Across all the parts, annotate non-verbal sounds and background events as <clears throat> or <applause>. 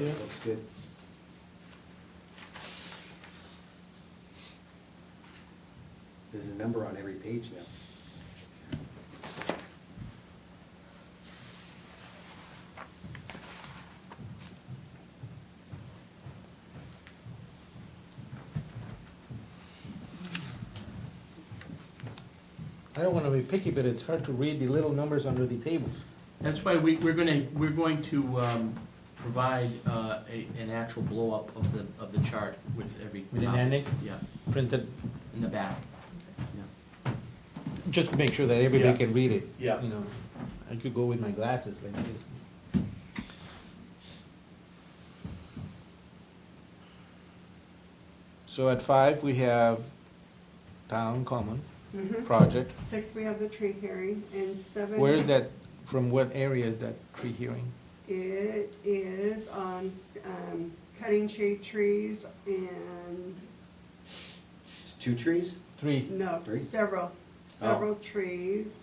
Yeah. Looks good. There's a number on every page now. I don't wanna be picky, but it's hard to read the little numbers under the tables. That's why we, we're gonna, we're going to, um, provide, uh, a, an actual blow-up of the, of the chart with every. With an copy. annex? Yeah, Printed, in the back. just to make sure that everybody Yeah. can read it. Yeah. You know, I could go with my glasses like this. So at five, we have town common Mhm. project. Six, we have the tree hearing, and seven. Where is that, from what area is that tree hearing? It is on, um, cutting shade trees and, It's two trees, Three. no, Three? Oh. several, several trees.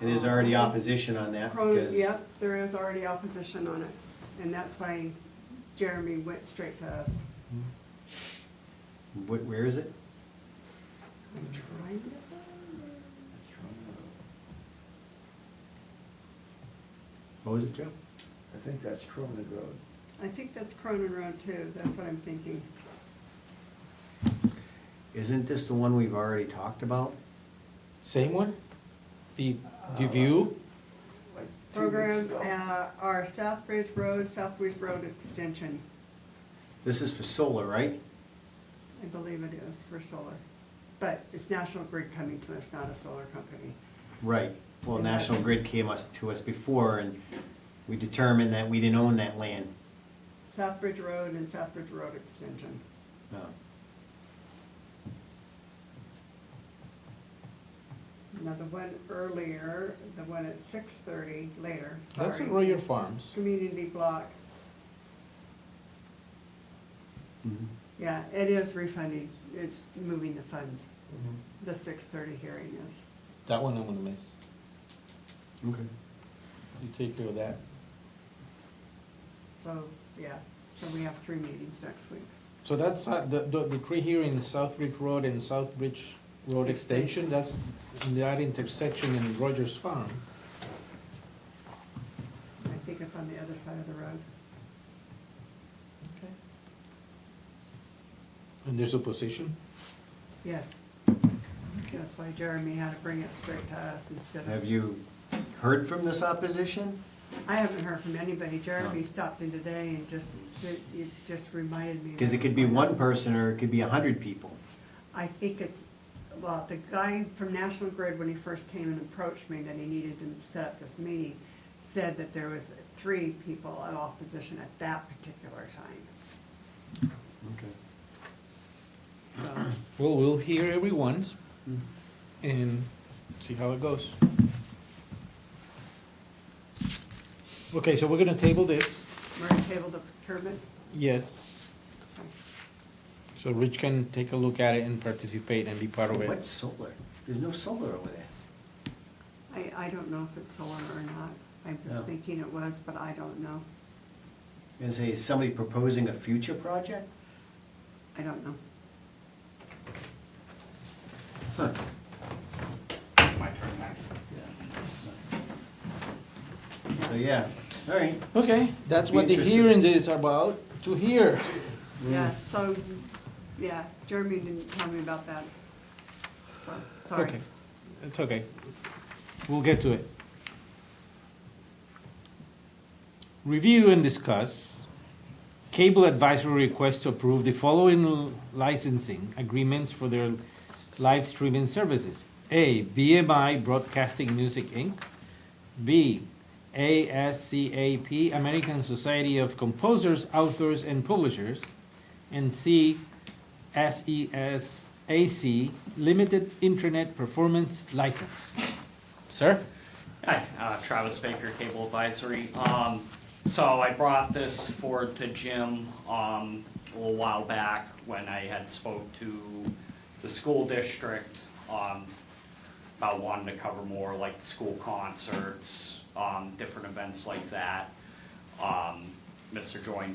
and there's already opposition on that Pro- because. Yep, there is already opposition on it, and that's why Jeremy went straight to us. Wh- Where is it? I'm trying to find it. What was it, Joe? I think that's uh, Cronin Road. I think that's Cronin Road too, that's what I'm thinking. Isn't this the one we've already talked about? Same one? The, Uh, the view? like two weeks Program, ago. uh, our Southbridge Road, Southbridge Road Extension, This is for solar, right? I believe it is for solar. But it's National Grid coming to us, not a solar company. Right. Well, And National that's- Grid came us, to us before and we determined that we didn't own that land. Southbridge Road and Southbridge Road Extension. No. Now, the one earlier, the one at six thirty later, sorry. That's in Royer Farms. Community block, Mhm. yeah, it is refunding, it's moving the funds, the six thirty hearing is. That one I'm gonna miss. Okay. You take care of that. So, yeah, so we have three meetings next week. So that's, uh, the, the, the tree here in Southbridge Road and Southbridge Road Extension, that's in that intersection in Rogers Farm. I think it's on the other side of the road. Okay. And there's opposition? Yes. That's why Jeremy had to bring it straight to us instead of. Have you heard from this opposition? I haven't heard from anybody. Jeremy stopped in today and just, it it just reminded me. Because it could be one person or it could be a hundred people. I think it's, well, the guy from National Grid, when he first came and approached me, that he needed to set up this meeting, said that there was three people in opposition at that particular time. Okay. <clears throat> So, Well, we'll hear everyone's and see how it goes. Okay, so we're gonna table this, we're gonna table the procurement. yes, Okay. so Rich can take a look at it and participate and be part of What's it. solar? There's no solar over there. I, I don't know if it's solar or not. I'm No. just thinking it was, but I don't know. And say, is somebody proposing a future project? I don't know. Huh. So, yeah, all right. Okay, that's what the Be interested. hearings is about, to hear. Yeah, so, yeah, Jeremy didn't tell me about that. So, Sorry. Okay, It's okay. We'll get to it. Review and discuss cable advisory request to approve the following licensing agreements for their live streaming services. A, BMI Broadcasting Music Inc. B, ASCAP, American Society of Composers, Authors, and Publishers. And C, E SESAC Limited Internet Performance License. Sir? Hi, uh, Travis Baker, Cable Advisory. Um, So I brought this forward to Jim um, a little while back when I had spoke to the school district um, about wanting to cover more like the school concerts, um, different events like that. Um, Mr. Join